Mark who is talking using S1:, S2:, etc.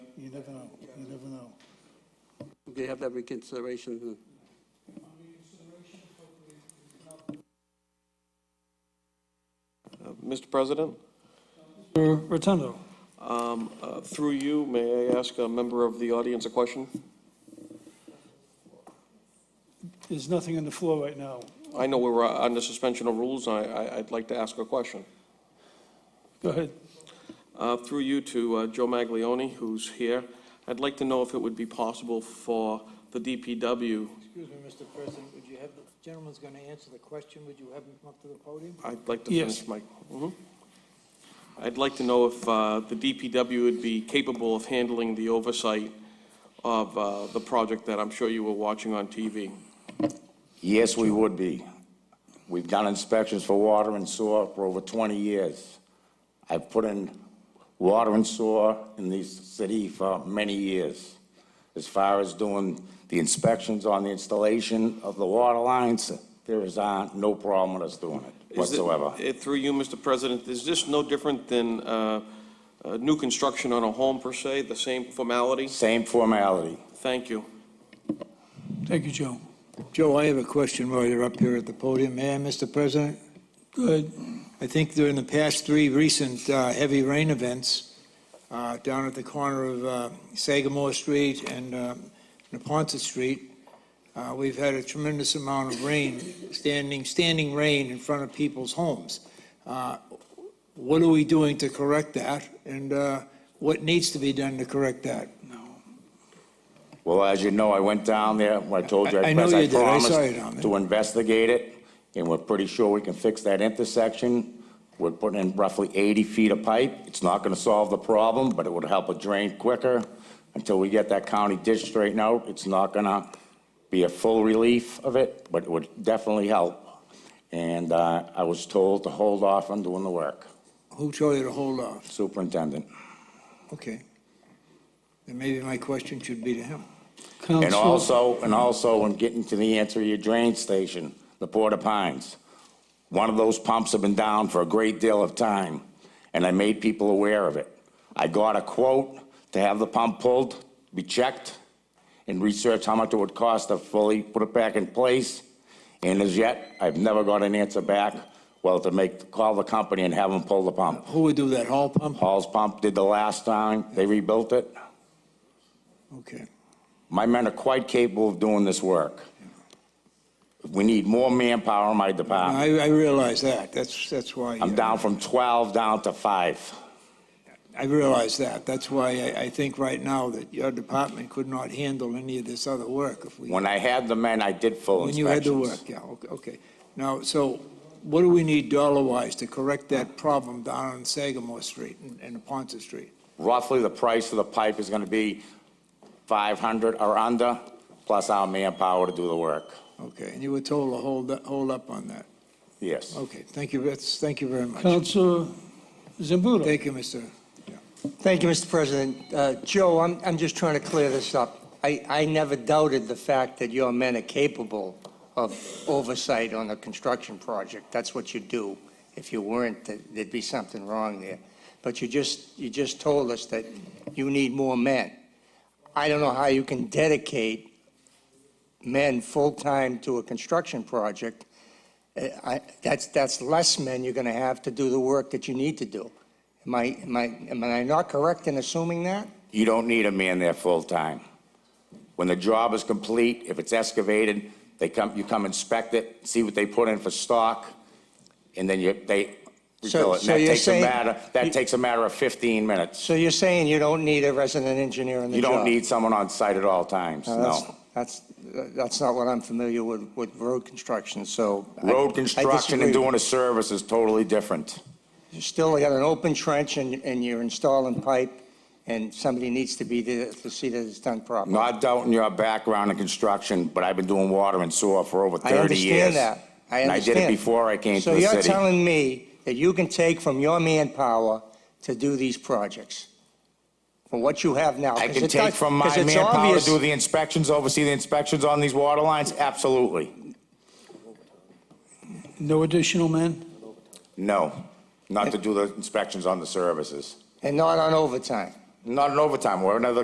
S1: You never know, you never know.
S2: Okay, have that reconsideration.
S3: Uh, Mr. President,
S4: Mr. Uh, Rotundo.
S3: um, uh, through you, may I ask a member of the audience a question?
S4: There's nothing on the floor right now.
S3: I know we're uh, under suspension of rules, I- I, I'd like to ask a question.
S4: Go ahead.
S3: Uh, Through you to uh, Joe Maglione, who's here, I'd like to know if it would be possible for the DPW,
S5: Excuse me, Mr. President, would you have, the gentleman's going to answer the question, would you have him come up to the podium?
S3: I'd like to
S4: Yes.
S3: finish my, Mhm. I'd like to know if uh, the DPW would be capable of handling the oversight of uh, the project that I'm sure you were watching on TV.
S6: Yes, we would be. We've done inspections for water and sewer for over 20 years. I've put in water and sewer in this city for many years. As far as doing the inspections on the installation of the water lines, there is uh, no problem with us doing it
S3: Is it-
S6: whatsoever.
S3: eh, Through you, Mr. President, is this no different than uh, uh, new construction on a home per se, the same formality?
S6: Same formality.
S3: Thank you.
S4: Thank you, Joe.
S5: Joe, I have a question while you're up here at the podium. May I, Mr. President?
S4: Go ahead.
S5: I think during the past three recent uh, heavy rain events, uh, down at the corner of uh, Sagamore Street and uh, Napontet Street, uh, we've had a tremendous amount of rain, standing, standing rain in front of people's homes. Uh, What are we doing to correct that, and uh, what needs to be done to correct that?
S6: Well, as you know, I went down there, when I told you,
S5: I- I
S6: I
S5: know
S6: pres-
S5: you
S6: I
S5: did. I
S6: promised
S5: saw you down there.
S6: to investigate it, and we're pretty sure we can fix that intersection. We're putting in roughly 80 feet of pipe. It's not going to solve the problem, but it would help it drain quicker. Until we get that county ditch straightened out, it's not going to be a full relief of it, but it would definitely help. And uh, I was told to hold off on doing the work,
S5: Who told you to hold off?
S6: superintendent.
S5: Okay. Then maybe my question should be to him.
S6: And
S4: Counsel,
S6: also, and also, I'm getting to the answer of your drain station, the Porta Pines. One of those pumps have been down for a great deal of time, and I made people aware of it. I got a quote to have the pump pulled, be checked, and research how much it would cost to fully put it back in place. And as yet, I've never got an answer back, well, to make, call the company and have them pull the pump.
S5: Who would do that, Hall Pump?
S6: Paul's Pump did the last time, they rebuilt it.
S5: Okay.
S6: My men are quite capable of doing this work. We need more manpower in my department.
S5: I, I realize that. That's, that's why.
S6: Um,
S5: uh,
S6: I'm down from 12 down to five.
S5: I realize that. That's why I, I think right now that your department could not handle any of this other work if we.
S6: When I had the men, I did full
S5: When you had
S6: inspections.
S5: to work, yeah, okay, okay. Now, so what do we need dollar-wise to correct that problem down on Sagamore Street and- and Ponce Street?
S6: Roughly, the price of the pipe is going to be 500 or under, plus our manpower to do the work.
S5: Okay, and you were told to hold, hold up on that.
S6: Yes.
S5: Okay, thank you, that's, thank you very much.
S4: Counselor Zambudo.
S5: Thank you, Mr.
S7: Thank you, Mr. President. Uh, Joe, I'm, I'm just trying to clear this up. I, I never doubted the fact that your men are capable of oversight on a construction project. That's what you do. If you weren't, th- there'd be something wrong there. But you just, you just told us that you need more men. I don't know how you can dedicate men full-time to a construction project. Uh, I, that's, that's less men you're gonna have to do the work that you need to do. Am I, am I, am I not correct in assuming that?
S6: You don't need a man there full-time. When the job is complete, if it's excavated, they come, you come inspect it, see what they put in for stock, and then you, they
S7: So-
S6: refill it. And
S7: so
S6: that
S7: you're
S6: takes a
S7: saying-
S6: matter,
S7: you-
S6: that takes a matter of 15 minutes.
S7: So you're saying you don't need a resident engineer in the
S6: You
S7: job?
S6: don't need someone on site at all times,
S7: No, that's-
S6: no.
S7: That's, that's not what I'm familiar with, with road construction, so. I-
S6: Road
S7: I
S6: construction
S7: disagree. Mm-hmm.
S6: and doing a service is totally different.
S7: You still got an open trench and, and you're installing pipe, and somebody needs to be there to see that it's done properly.
S6: Not doubting your background in construction, but I've been doing water and sewer for over 30
S7: I
S6: years.
S7: understand that. I
S6: And I did
S7: understand.
S6: it before I came to the city.
S7: So you're telling me that you can take from your manpower to do these projects? From what you have now?
S6: I
S7: 'cause
S6: can
S7: it
S6: take
S7: does-
S6: from my
S7: 'cause it's
S6: manpower to
S7: obvious-
S6: do the inspections, oversee the inspections on these water lines? Absolutely.
S4: No additional men?
S6: No, not to do the inspections on the services.
S7: And not on overtime?
S6: Not in overtime, or another